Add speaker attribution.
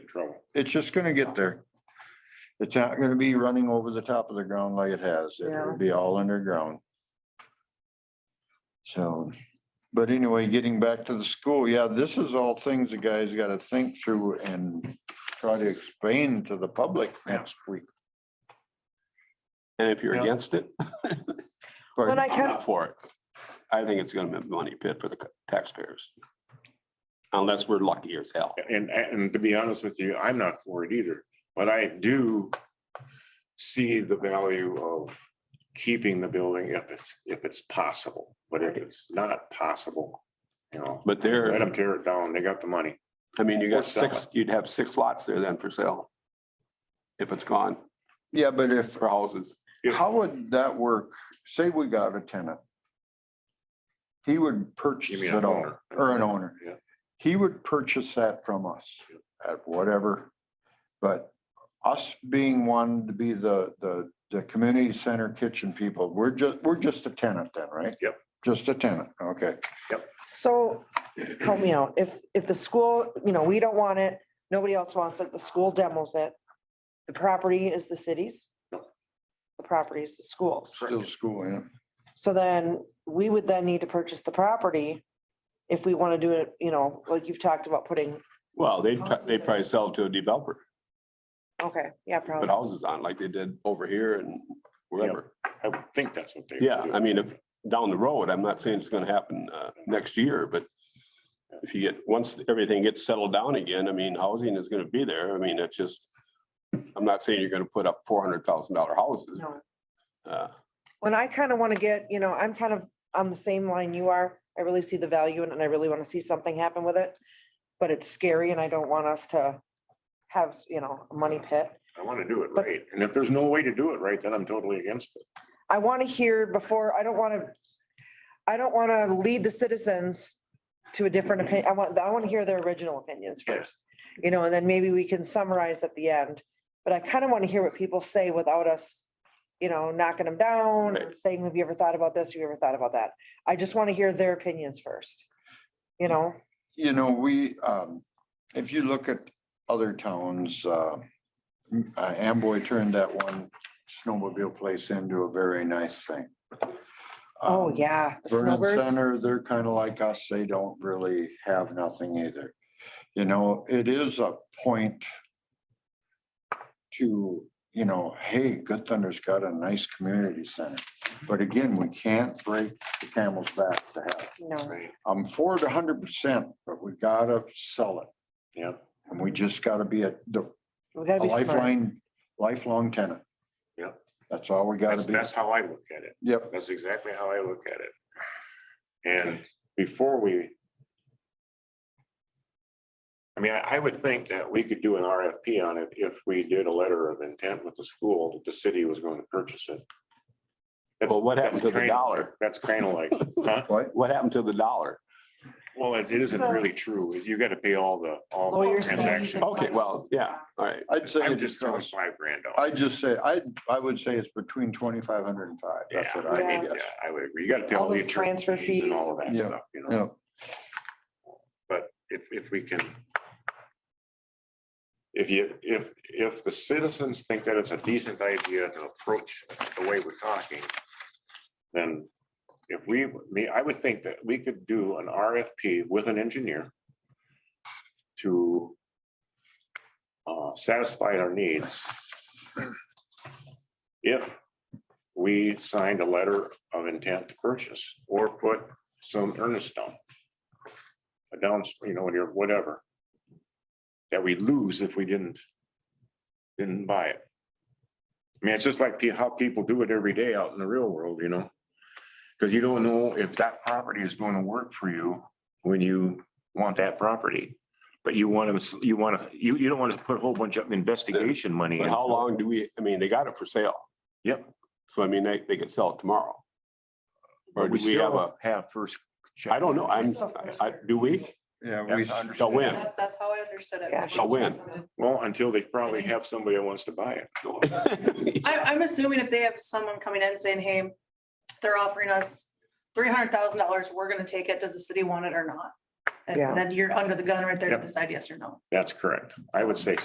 Speaker 1: it's just gonna get there. It's not gonna be running over the top of the ground like it has.
Speaker 2: Yeah.
Speaker 1: It'll be all underground. So, but anyway, getting back to the school, yeah, this is all things the guys gotta think through and try to explain to the public next week.
Speaker 3: And if you're
Speaker 1: Yeah.
Speaker 3: against it,
Speaker 2: But I
Speaker 3: I'm
Speaker 2: kind of,
Speaker 3: not for it. I think it's gonna be a money pit for the taxpayers. Unless we're lucky as hell.
Speaker 4: And, and to be honest with you, I'm not for it either, but I do see the value of keeping the building if it's, if it's possible. But if it's not possible, you know,
Speaker 3: But
Speaker 4: let
Speaker 3: there,
Speaker 4: them tear it down. They got the money.
Speaker 3: I mean, you
Speaker 4: Or
Speaker 3: got
Speaker 4: sell
Speaker 3: six, you'd have six lots there then for sale. If it's gone
Speaker 1: Yeah, but if,
Speaker 3: for houses.
Speaker 4: If-
Speaker 1: how would that work? Say we got a tenant. He would purchase
Speaker 4: mean an
Speaker 1: it all,
Speaker 4: owner.
Speaker 1: or an owner.
Speaker 4: Yeah.
Speaker 1: He would purchase that from us at whatever. But us being one to be the, the, the community center kitchen people, we're just, we're just a tenant then, right?
Speaker 4: Yep.
Speaker 1: Just a tenant, okay.
Speaker 2: so help me out. If, if the school, you know, we don't want it, nobody else wants it, the school demos it. The property is the city's. The property is the school's.
Speaker 1: Still school, yeah.
Speaker 2: So then we would then need to purchase the property. If we want to do it, you know, like you've talked about putting,
Speaker 3: Well, they, they probably sell it to a developer,
Speaker 2: okay, yeah,
Speaker 3: put
Speaker 2: probably.
Speaker 3: houses on like they did over here and wherever.
Speaker 4: I would think that's what they. would
Speaker 3: Yeah,
Speaker 4: do.
Speaker 3: I mean, if down the road, I'm not saying it's gonna happen uh next year, but if you get, once everything gets settled down again, I mean, housing is gonna be there. I mean, it's just, I'm not saying you're gonna put up four hundred thousand dollar houses.
Speaker 2: No.
Speaker 3: Uh,
Speaker 2: When I kind of want to get, you know, I'm kind of on the same line you are. I really see the value in it and I really want to see something happen with it. But it's scary and I don't want us to have, you know, a money pit.
Speaker 4: I want to do it right. And if there's no way to do it right, then I'm totally against it.
Speaker 2: I want to hear before, I don't want to, I don't want to lead the citizens to a different opinion. I want, I want to hear their original opinions first. You know, and then maybe we can summarize at the end. But I kind of want to hear what people say without us, you know, knocking them down, or
Speaker 3: Right.
Speaker 2: saying, have you ever thought about this? Have you ever thought about that? I just want to hear their opinions first. You know,
Speaker 1: you know, we, um, if you look at other towns, uh, uh, Amboy turned that one snowmobile place into a very nice thing.
Speaker 2: oh,
Speaker 1: Um,
Speaker 2: yeah. the
Speaker 1: Vernon
Speaker 2: snowbirds.
Speaker 1: Center, they're kind of like us. They don't really have nothing either. You know, it is a point to, you know, hey, Good Thunder's got a nice community center. But again, we can't break the camel's back to have.
Speaker 2: No,
Speaker 1: I'm for it hundred percent, but we gotta sell it.
Speaker 4: Yeah.
Speaker 1: And we just gotta be a, the
Speaker 2: we
Speaker 1: a
Speaker 2: gotta be smart.
Speaker 1: lifeline, lifelong tenant.
Speaker 4: Yep.
Speaker 1: That's all we gotta
Speaker 4: That's,
Speaker 1: be.
Speaker 4: that's how I look at it.
Speaker 1: Yep,
Speaker 4: That's exactly how I look at it. And before we. I mean, I, I would think that we could do an RFP on it if we did a letter of intent with the school that the city was going to purchase it. That's-
Speaker 3: Well, what happened
Speaker 4: that's
Speaker 3: to the
Speaker 4: kinda-
Speaker 3: dollar?
Speaker 4: That's kind of like, huh?
Speaker 1: what?
Speaker 3: What happened to the dollar?
Speaker 4: Well, it it isn't really true. You gotta pay all the, all the
Speaker 2: Lawyers' fees.
Speaker 4: transactions.
Speaker 3: Okay, well, yeah, all right.
Speaker 1: I'd say,
Speaker 4: I'm
Speaker 1: it's
Speaker 4: just throwing
Speaker 1: across-
Speaker 4: five grand out.
Speaker 1: I'd just say, I, I would say it's between twenty-five hundred and five. That's what
Speaker 4: Yeah, I
Speaker 1: I
Speaker 4: mean,
Speaker 1: would
Speaker 4: yeah, I would agree. You gotta pay all
Speaker 2: All
Speaker 4: the
Speaker 2: those
Speaker 4: attorney
Speaker 2: transfer
Speaker 4: fees and all of that
Speaker 1: fees. Yeah.
Speaker 4: stuff, you know?
Speaker 1: guess.
Speaker 4: But if, if we can. If you, if, if the citizens think that it's a decent idea to approach the way we're talking. Then if we, me, I would think that we could do an RFP with an engineer. To. Uh, satisfy our needs. If we signed a letter of intent to purchase or put some earnest down a down, you know, or whatever. That we lose if we didn't, didn't buy it. I mean, it's just like pe- how people do it every day out in the real world, you know? Because you don't know if that property is going to work for you when you want that property. But you want to, you want to, you, you don't want to put a whole bunch of investigation money.
Speaker 3: But
Speaker 4: in.
Speaker 3: how long do we, I mean, they got it for sale.
Speaker 4: Yep.
Speaker 3: So I mean, they, they could sell it tomorrow. Or
Speaker 4: But
Speaker 3: do we have a,
Speaker 4: still Have first.
Speaker 3: I don't know, I'm, I, do we?
Speaker 1: Yeah,
Speaker 4: Yes,
Speaker 1: we,
Speaker 4: I
Speaker 1: yeah,
Speaker 4: understand.
Speaker 3: So when?
Speaker 5: That- That's how I understood it.
Speaker 2: Yeah.
Speaker 3: So when?
Speaker 4: Well, until they probably have somebody that wants to buy it.
Speaker 5: I, I'm assuming if they have someone coming in saying, hey, they're offering us three hundred thousand dollars, we're gonna take it. Does the city want it or not?
Speaker 2: Yeah.
Speaker 5: And then you're under the gun right there to
Speaker 4: Yep.
Speaker 5: decide yes or no.
Speaker 4: That's correct. I would say